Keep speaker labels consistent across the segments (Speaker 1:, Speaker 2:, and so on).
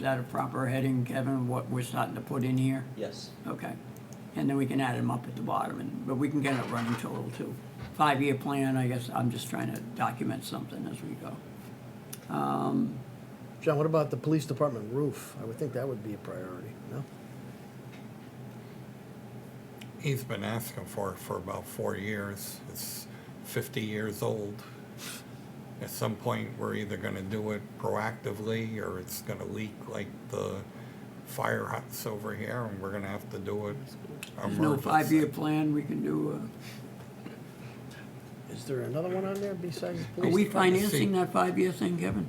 Speaker 1: that a proper heading, Kevin, what we're starting to put in here?
Speaker 2: Yes,
Speaker 1: Okay. And then we can add them up at the bottom, and, but we can get a running total too. Five-year plan, I guess, I'm just trying to document something as we go.
Speaker 3: John, what about the police department roof? I would think that would be a priority, no?
Speaker 4: He's been asking for it for about four years. It's 50 years old. At some point, we're either going to do it proactively or it's going to leak like the fire huts over here and we're going to have to do it.
Speaker 1: There's no
Speaker 4: emergency.
Speaker 1: five-year plan, we can do, uh,
Speaker 3: Is there another one on there besides the
Speaker 1: are
Speaker 3: police?
Speaker 1: we
Speaker 4: Please try to see.
Speaker 1: financing that five-year thing, Kevin?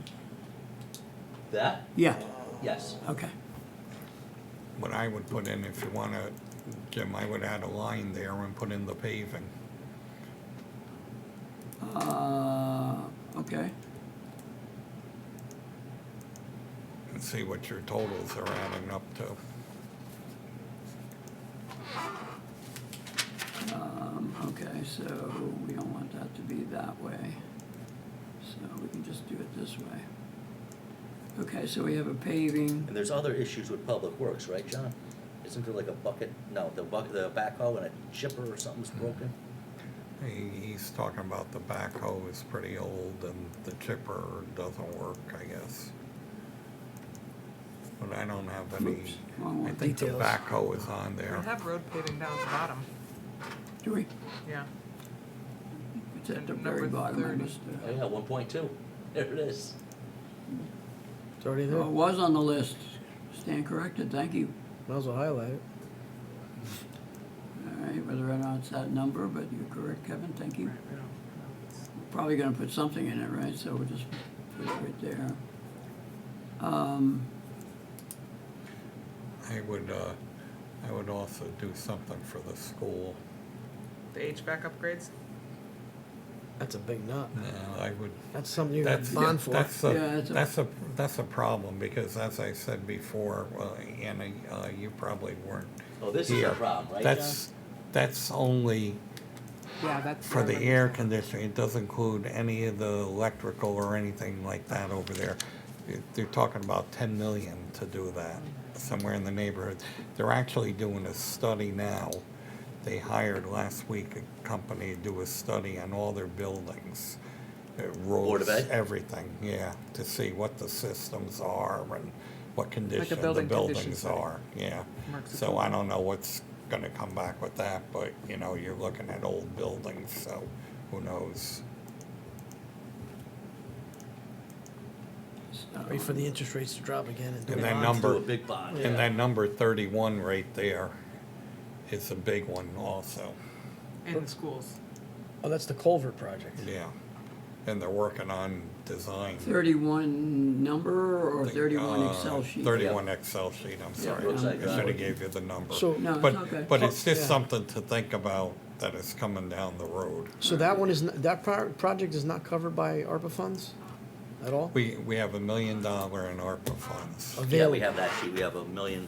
Speaker 2: that,
Speaker 1: Yeah,
Speaker 2: yes,
Speaker 1: okay.
Speaker 4: What I would put in, if you want to, Jim, I would add a line there and put in the paving.
Speaker 1: Uh, okay,
Speaker 4: and see what your totals are adding up to.
Speaker 1: um, okay, so we don't want that to be that way. So we can just do it this way. Okay, so we have a paving,
Speaker 2: and there's other issues with public works, right, John? Isn't there like a bucket, no, the bucket, the backhoe and a chipper or something's broken?
Speaker 4: He, he's talking about the backhoe is pretty old and the chipper doesn't work, I guess. But I don't have any,
Speaker 1: Oops, wrong one.
Speaker 4: I think the
Speaker 3: Details.
Speaker 4: backhoe is on
Speaker 5: We
Speaker 4: there.
Speaker 5: have road paving down at the bottom,
Speaker 1: do we?
Speaker 5: yeah.
Speaker 1: It's at the
Speaker 5: And number
Speaker 1: very bottom, I
Speaker 5: 30.
Speaker 1: missed it.
Speaker 2: Oh, yeah, one point two, there it is.
Speaker 3: It's already there.
Speaker 1: Well, Oh, it
Speaker 3: Might
Speaker 1: was on the list. Stand corrected, thank you.
Speaker 3: as well highlight it.
Speaker 1: All right, whether or not it's that number, but you're correct, Kevin, thank you.
Speaker 5: Right, we don't-
Speaker 1: Probably gonna put something in it, right? So we'll just put it right there. Um,
Speaker 4: I would, uh, I would also do something for the school.
Speaker 5: The HVAC upgrades,
Speaker 3: That's a big nut.
Speaker 4: Uh, I would,
Speaker 3: That's something you got
Speaker 4: that's,
Speaker 3: to bond for.
Speaker 4: that's
Speaker 1: Yeah,
Speaker 4: a,
Speaker 1: it's a-
Speaker 4: that's a, that's a problem because as I said before, well, Anna, uh, you probably weren't
Speaker 2: Oh, this is a
Speaker 4: here.
Speaker 2: problem, right, John?
Speaker 4: That's, that's only
Speaker 5: yeah, that's.
Speaker 4: For the air conditioning, it doesn't include any of the electrical or anything like that over there. They- They're talking about ten million to do that, somewhere in the neighborhood. They're actually doing a study now. They hired last week a company to do a study on all their buildings. uh,
Speaker 2: Board of
Speaker 4: roads,
Speaker 2: Ed?
Speaker 4: Everything, yeah, to see what the systems are and what condition the
Speaker 5: building condition
Speaker 4: buildings
Speaker 5: study.
Speaker 4: are, yeah.
Speaker 5: Marks the
Speaker 4: So I don't know what's gonna come back with that, but, you know, you're looking at old buildings, so who knows?
Speaker 1: so-
Speaker 3: Wait for the interest rates to drop again and do
Speaker 4: And
Speaker 3: it.
Speaker 4: that
Speaker 2: Bond,
Speaker 4: number-
Speaker 2: do a big bond, yeah.
Speaker 4: And that number thirty-one right there is a big one also,
Speaker 5: In schools,
Speaker 3: Oh, that's the culvert project.
Speaker 4: yeah. And they're working on design.
Speaker 1: Thirty-one number or thirty-one
Speaker 4: uh,
Speaker 1: Excel sheet?
Speaker 4: Thirty-one Excel sheet, I'm sorry,
Speaker 2: looks
Speaker 4: I
Speaker 2: like that.
Speaker 4: should've gave you the number.
Speaker 3: So-
Speaker 1: No, it's okay.
Speaker 4: But, but it's just
Speaker 3: Yeah.
Speaker 4: something to think about that is coming down the road.
Speaker 3: So that one is, n- that pro- project is not covered by ARPA funds at all?
Speaker 4: We, we have a million dollar in ARPA funds,
Speaker 2: Yeah, we
Speaker 3: Available.
Speaker 2: have that sheet, we have a million,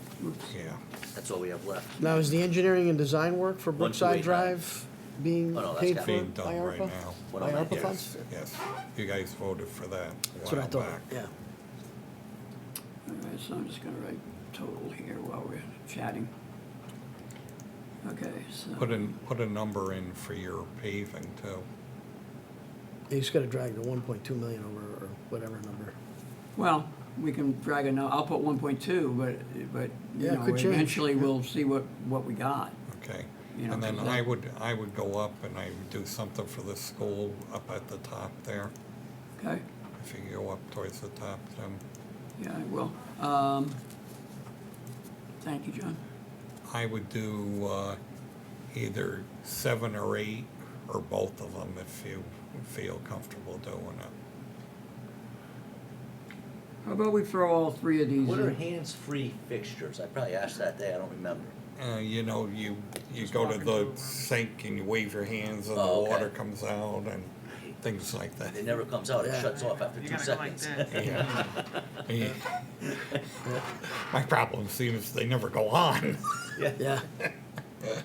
Speaker 4: yeah.
Speaker 2: that's all we have left.
Speaker 3: Now, is the engineering and design work for
Speaker 2: One, two, eight,
Speaker 3: Brookside
Speaker 2: nine.
Speaker 3: Drive being
Speaker 2: Oh, no, that's
Speaker 3: paid
Speaker 2: got-
Speaker 3: for
Speaker 4: Being
Speaker 3: by
Speaker 4: done right
Speaker 3: ARPA?
Speaker 4: now.
Speaker 2: What
Speaker 3: By
Speaker 2: am I-
Speaker 3: ARPA
Speaker 2: Yes.
Speaker 3: funds?
Speaker 4: Yes, yes, you guys voted for that
Speaker 3: That's what
Speaker 4: a
Speaker 3: I
Speaker 4: while
Speaker 3: thought,
Speaker 4: back.
Speaker 3: yeah.
Speaker 1: All right, so I'm just gonna write total here while we're chatting. Okay, so.
Speaker 4: Put in, put a number in for your paving too.
Speaker 3: You just gotta drag the one point two million over or whatever number.
Speaker 1: Well, we can drag it, now. I'll put one point two, but, but, you
Speaker 3: Yeah, it
Speaker 1: know,
Speaker 3: could change.
Speaker 1: eventually we'll see what, what we got.
Speaker 4: Okay,
Speaker 1: You know,
Speaker 4: and then
Speaker 1: because
Speaker 4: I
Speaker 1: that-
Speaker 4: would, I would go up and I would do something for the school up at the top there,
Speaker 1: Okay?
Speaker 4: if you go up towards the top, Jim.
Speaker 1: Yeah, I will. Um, thank you, John.
Speaker 4: I would do, uh, either seven or eight, or both of them if you feel comfortable doing it.
Speaker 1: How about we throw all three of these
Speaker 2: What are
Speaker 1: in?
Speaker 2: hands-free fixtures? I probably asked that day, I don't remember.
Speaker 4: Uh, you know, you, you
Speaker 5: Just
Speaker 4: go
Speaker 5: walk
Speaker 4: to
Speaker 5: into a
Speaker 4: the
Speaker 5: room.
Speaker 4: sink and you wave your hands and the
Speaker 2: Oh, okay.
Speaker 4: water comes out and things like that.
Speaker 2: It never comes out, it
Speaker 3: Yeah.
Speaker 2: shuts off after
Speaker 5: you
Speaker 2: two
Speaker 5: gotta go like
Speaker 2: seconds.
Speaker 5: this.
Speaker 4: Yeah. Yeah. My problem seems they never go on.
Speaker 3: Yeah,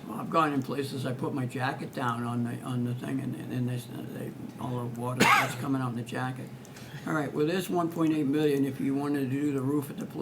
Speaker 1: Well, I've gone in places, I put my jacket down on the, on the thing and then they, s- they, all the water that's coming out in the jacket. All right, well, there's one point eight million if you wanted to do the roof at the police